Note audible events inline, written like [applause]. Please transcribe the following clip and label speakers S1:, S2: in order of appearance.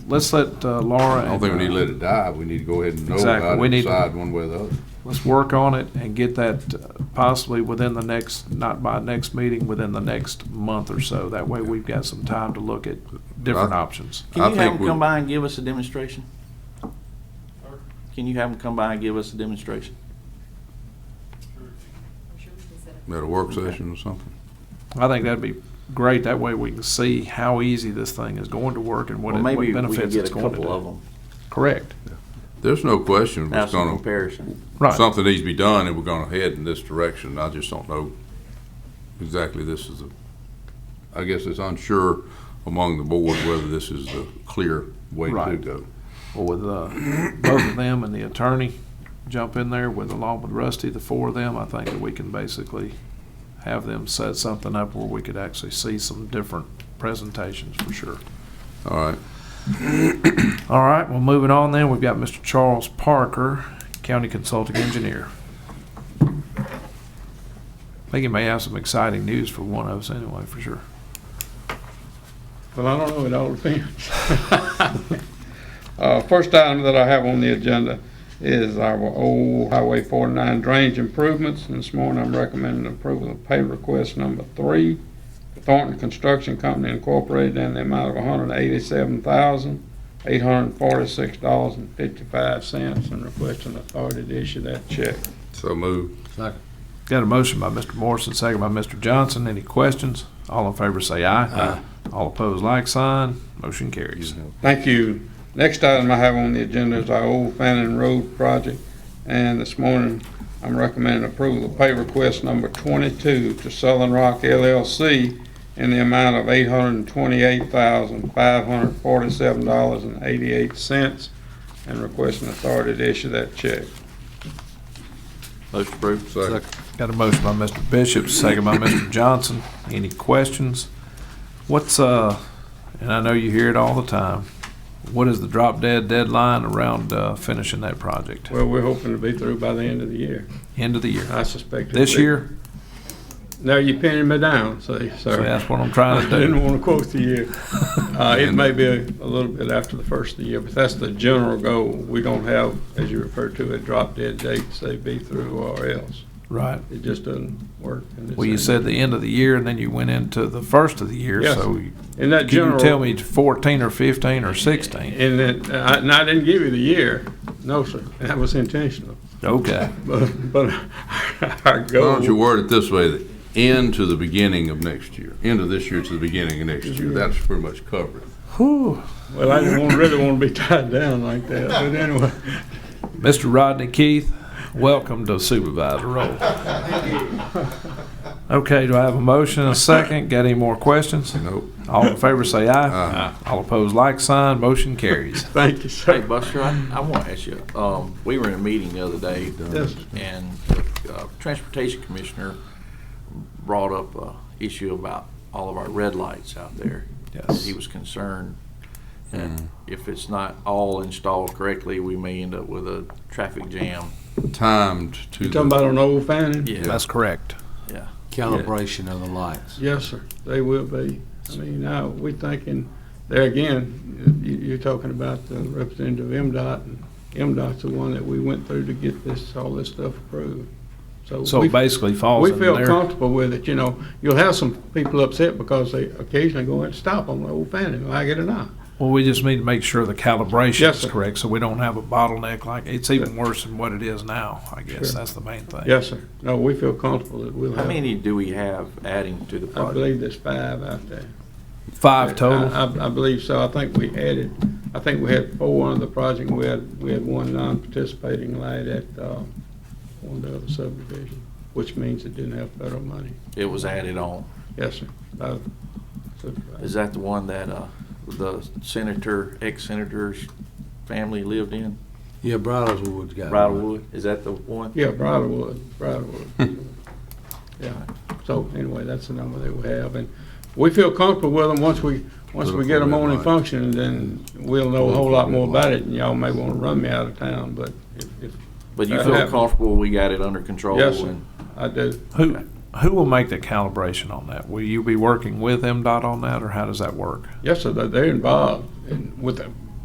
S1: let's let uh, Laura
S2: I
S1: and.
S2: don't think we
S1: uh,
S2: need to let it die. We need to go ahead and know
S1: Exactly.
S2: about
S1: We
S2: it,
S1: need
S2: and
S1: to-
S2: decide one way or the other.
S1: Let's work on it and get that uh, possibly within the next, not by next meeting, within the next month or so. That way we've got some time to look at different
S2: I-
S1: options.
S2: I
S3: Can you
S2: think
S3: have
S2: we-
S3: them come by and give us a demonstration? Can you have them come by and give us a demonstration?
S2: At a work session or something.
S1: I think that'd be great. That way we can see how easy this thing is going to work and what
S3: Well,
S1: it- what
S3: maybe we can
S1: benefits
S3: get
S1: it's
S3: a
S1: going to
S3: couple of
S1: do.
S3: them,
S1: Correct.
S2: There's no question
S3: have
S2: it's
S3: some
S2: gonna,
S3: comparison.
S1: Right.
S2: something needs to be done and we're gonna head in this direction. I just don't know exactly this is the, I guess it's unsure among the board whether this is the clear way to
S1: Right.
S2: go.
S1: Well, with uh, both of them and the attorney jump in there with along with Rusty, the four of them, I think that we can basically have them set something up where we could actually see some different presentations for sure.
S2: All right.
S1: All right, well, moving on then, we've got Mr. Charles Parker, County Consulting Engineer. I think he may have some exciting news for one of us anyway, for sure.
S4: Well, I don't know, it all depends. [laughs] Uh, First item that I have on the agenda is our old Highway 49 drainage improvements. And this morning, I'm recommending approval of pay request number three, Thornton Construction Company Incorporated, in the amount of $187,846.55, and requesting authority to issue that check.
S2: So move.
S1: Got a motion by Mr. Morrison, second by Mr. Johnson. Any questions? All in favor say aye. Aye. All opposed, like sign. Motion carries.
S4: Thank you. Next item I have on the agenda is our old Fannin Road project, and this morning I'm recommending approval of pay request number twenty-two to Southern Rock LLC in the amount of eight hundred and twenty-eight thousand, five hundred and forty-seven dollars and eighty-eight cents, and requesting authority to issue that check.
S3: Motion approved.
S2: Second.
S1: Got a motion by Mr. Bishop, second by Mr. Johnson. Any questions? What's, uh, and I know you hear it all the time, what is the drop dead deadline around uh, finishing that project?
S4: Well, we're hoping to be through by the end of the year.
S1: End of the year.
S4: I suspect. it'll
S1: This
S4: be- [laughs]
S1: year?
S4: No, you're pinning me down, see,
S1: So
S4: sir.
S1: that's what I'm trying
S4: [laughs] I
S1: to
S4: didn't
S1: do.
S4: want to quote the year. Uh, it may be a a little bit after the first of the year, but that's the general goal. We don't have, as you refer to it, drop dead dates, say be through or else.
S1: Right.
S4: It just doesn't work. in this
S1: Well, you said
S4: industry.
S1: the end of the year and then you went into the first of the year,
S4: Yes.
S1: so you-
S4: In that
S1: can you
S4: general.
S1: tell me fourteen or fifteen or sixteen?
S4: And that, I- and I didn't give you the year. No, sir. That was intentional. [laughs]
S1: Okay.
S4: But, but [laughs] our
S2: Why don't you
S4: goal,
S2: word it this way, the end to the beginning of next year, end of this year to the beginning of next year. That's pretty much covered.
S1: Whew.
S4: well, I didn't want- really want to be tied down like that, but anyway. [laughs]
S1: Mr. Rodney Keith, welcome to supervisor [laughs] role. Okay, do I have a motion and a second? Got any more questions?
S2: Nope.
S1: All in favor say aye.
S2: Aye.
S1: All opposed, like sign, motion
S4: [laughs]
S1: carries.
S4: Thank you,
S3: Hey,
S4: sir.
S3: Buster, I, I want to ask you, um, we were in a meeting the other day,
S4: Yes.
S3: and uh, Transportation Commissioner brought up a issue about all of our red lights out there.
S1: Yes.
S3: He was concerned
S2: Mm-hmm.
S3: that if it's not all installed correctly, we may end up with a traffic jam.
S2: Timed to.
S4: You talking about on Old Fannin?
S1: That's correct.
S3: Yeah.
S5: calibration of the lights.
S4: Yes, sir, they will be. I mean, now, we thinking, there again, you, you're talking about the representative MDOT, and MDOT's the one that we went through to get this, all this stuff approved.
S1: So
S4: we-
S1: it basically falls
S4: We
S1: in
S4: feel
S1: there.
S4: comfortable with it, you know, you'll have some people upset because they occasionally go and stop on Old Fannin, like it or not.
S1: Well, we just need to make sure the calibration
S4: Yes,
S1: is
S4: sir.
S1: correct, so we don't have a bottleneck like, it's even worse than what it is now, I guess.
S4: Sure.
S1: That's the main thing.
S4: Yes, sir, no, we feel comfortable that we'll
S3: How
S4: have,
S3: many do we have adding to the
S4: I
S3: project?
S4: believe there's five out there.
S1: Five total.
S4: I, I- I believe so. I think we added, I think we had four on the project, and we had, we had one non-participating light at, uh, one of the other subdivision, which means it didn't have federal money.
S3: It was added on.
S4: Yes, sir. Uh, so-
S3: Is that the one that uh, the senator, ex-senator's family lived in,
S5: Yeah, Bridleswood's
S4: Uh,
S5: got. one.
S3: Bridlewood? Is that the one?
S4: Yeah, Bridlewood, Bridlewood.
S1: [laughs]
S4: Yeah, so anyway, that's the number that we have, and we feel comfortable with them once we, once we get them on and functioning, then we'll know a whole lot more about it, and y'all may wanna run me out of town, but if, if,
S3: But you
S4: That
S3: feel
S4: happened.
S3: comfortable we got it under control?
S4: Yes, sir.
S3: and-
S4: I do.
S1: Who, who will make the calibration on that? Will you be working with MDOT on that, or how does that work?
S4: Yes, sir, they- they're involved in- with, the-